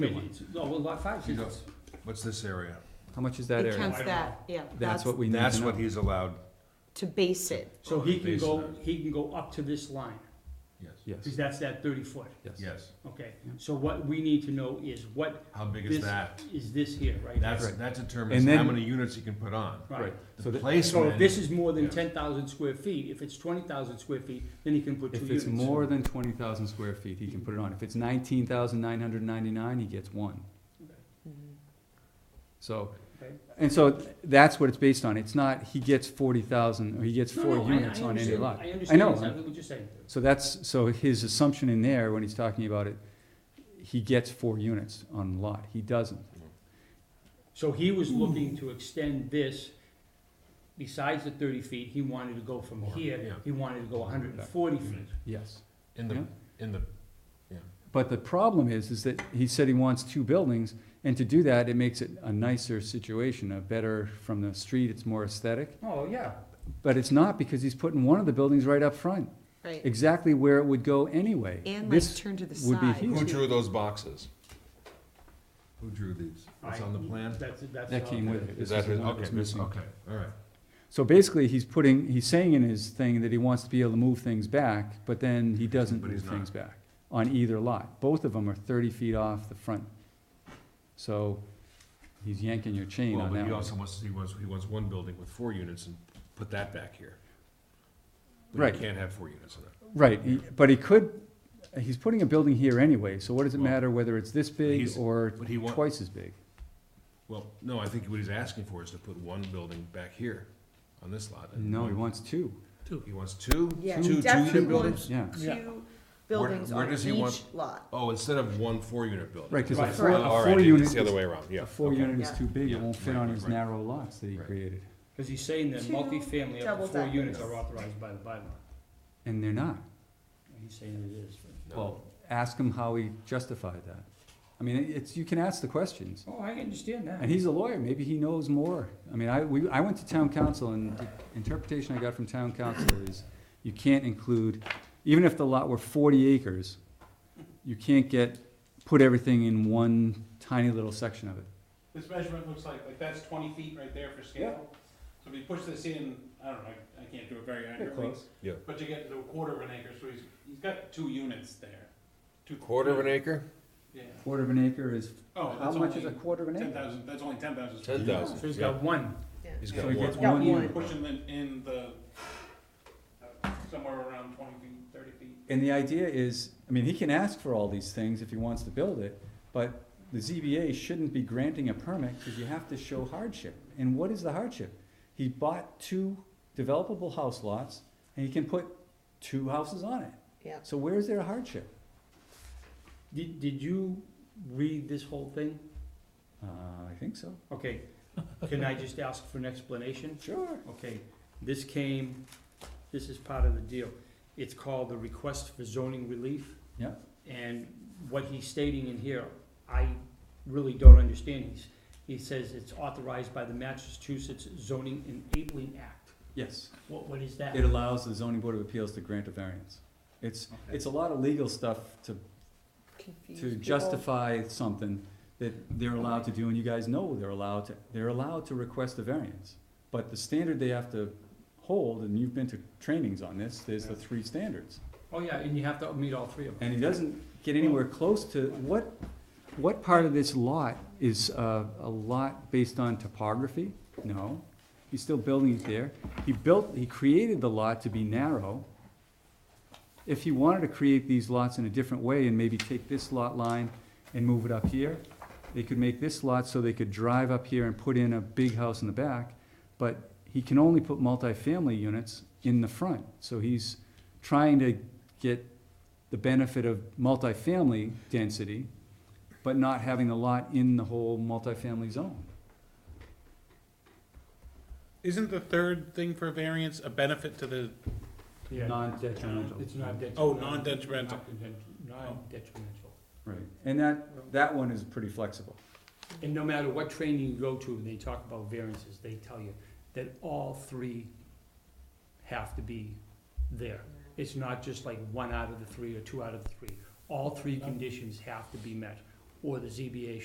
I mean, it's- No, Oh, well, lot five, You it's- What's this area? How much is that It area? counts that, yeah. That's what we need to know. That's what he's allowed, To base it, so he can Based go, on- he can go up to this line, yes, because Yes, that's that thirty foot, yes. yes. okay? So what we need to know is what How big is this, that? is this here, right? That's, Right. that And determines then- how many units he can put on. Right. So So The that- if this placement, is more than Yeah. ten thousand square feet, if it's twenty thousand square feet, then he can put two If units. it's more than twenty thousand square feet, he can put it on. If it's nineteen thousand nine hundred ninety-nine, he gets one. So, Okay. and so that's what it's based on. It's not he gets forty thousand, or he gets No, four no, I- I units on any understand- lot. I understand know. exactly what you're saying. So that's, so his assumption in there, when he's talking about it, he gets four units on a lot. He doesn't. So he was looking to extend this, besides the thirty feet, he wanted to go from More, here, yeah. he wanted to go hundred and forty feet. Yes. in the, Yeah. in the, But the problem is, is that he said he wants two buildings, and to do that, it makes it a nicer situation, a better, from the street, it's more aesthetic. Oh, yeah. But it's not, because he's putting one of the buildings right up front, right? exactly where it would go anyway. And like This, turn to the would be side. huge. Who too. drew those boxes? who drew these? It's I- on the plan? That's, that's. that how- came with it. Is This that his- the one that Okay, was this, missing. okay, all right. So basically, he's putting, he's saying in his thing that he wants to be able to move things back, but then he doesn't But move he's not. things back on either lot. Both of them are thirty feet off the front. So he's yanking your chain Well, on but that he one. also wants, he wants, he wants one building with four units and put that back here. But Right. he can't have four units in it. Right, he- but he could, he's putting a building here anyway, so what does it Well, matter whether it's this big he's- or But he wants, twice as big? well, no, I think what he's asking for is to put one building back here on this lot. and No, one- he wants two. He wants two, Yeah, two, two he unit definitely buildings? wants Yeah. two buildings Where- where on does he each want- lot. Oh, instead of one four-unit building? Right, because a Right. four, All a right, four it's unit, The other way around, yeah. a four okay. unit is Yeah. too big, Yeah, it won't fit right, on right, his right. narrow lots that he Right. created, Cause he's saying that Two multifamily up to double four deckers. units are authorized by the bylaw. and they're not. He's saying it is. No. Well, ask him how he justified that. I mean, it's, you can ask the questions, Oh, I understand that. and he's a lawyer, maybe he knows more. I mean, I, we, I went to town council, and the interpretation I got from town council is, you can't include, even if the lot were forty acres, you can't get, put everything in one tiny little section of it. This measurement looks like, like that's twenty feet right there for scale. So if you push this in, I don't know, I, I can't do it very accurately. close. Yeah. But you get to a quarter of an acre, so he's, he's got two units there. Two- Quarter of an acre? Yeah. Quarter of an acre is, Oh, how that's much is a only quarter of an ten acre? thousand, that's only ten thousand. Ten thousand. So he's Yeah. got one. He's Yeah. got So he one. gets one one. unit. Pushing them in the, somewhere around twenty feet, thirty feet. And the idea is, I mean, he can ask for all these things if he wants to build it, but the ZBA shouldn't be granting a permit because you have to show hardship. And what is the hardship? He bought two developable house lots and he can put two houses on it. Yeah. So where's their hardship? Did, did you read this whole thing? Uh, I think so. Okay, can I just ask for an explanation? Sure. Okay, this came, this is part of the deal. It's called the request for zoning relief. Yeah. And what he's stating in here, I really don't understand. He's, he says it's authorized by the Massachusetts Zoning Enabling Act. Yes. What, what is that? It allows the zoning board of appeals to grant a variance. It's, Okay. it's a lot of legal stuff to Confuse to people. justify something that they're allowed to do, and you guys know they're allowed to, they're allowed to request a variance. But the standard they have to hold, and you've been to trainings on this, there's the three standards. Oh, yeah, and you have to meet all three of them. And he doesn't get anywhere close to, what, what part of this lot is uh, a lot based on topography? No, he's still building it there. He built, he created the lot to be narrow. If he wanted to create these lots in a different way and maybe take this lot line and move it up here, they could make this lot so they could drive up here and put in a big house in the back, but he can only put multifamily units in the front. So he's trying to get the benefit of multifamily density, but not having the lot in the whole multifamily zone. Isn't the third thing for variance a benefit to the, Non-detrimental. It's not detrimental. Oh, non-detrimental. Oh. Non-detrimental. Right, and that, that one is pretty flexible. And no matter what training you go to, they talk about variances, they tell you that all three have to be there. It's not just like one out of the three or two out of the three. All three conditions have to be met. or the ZBA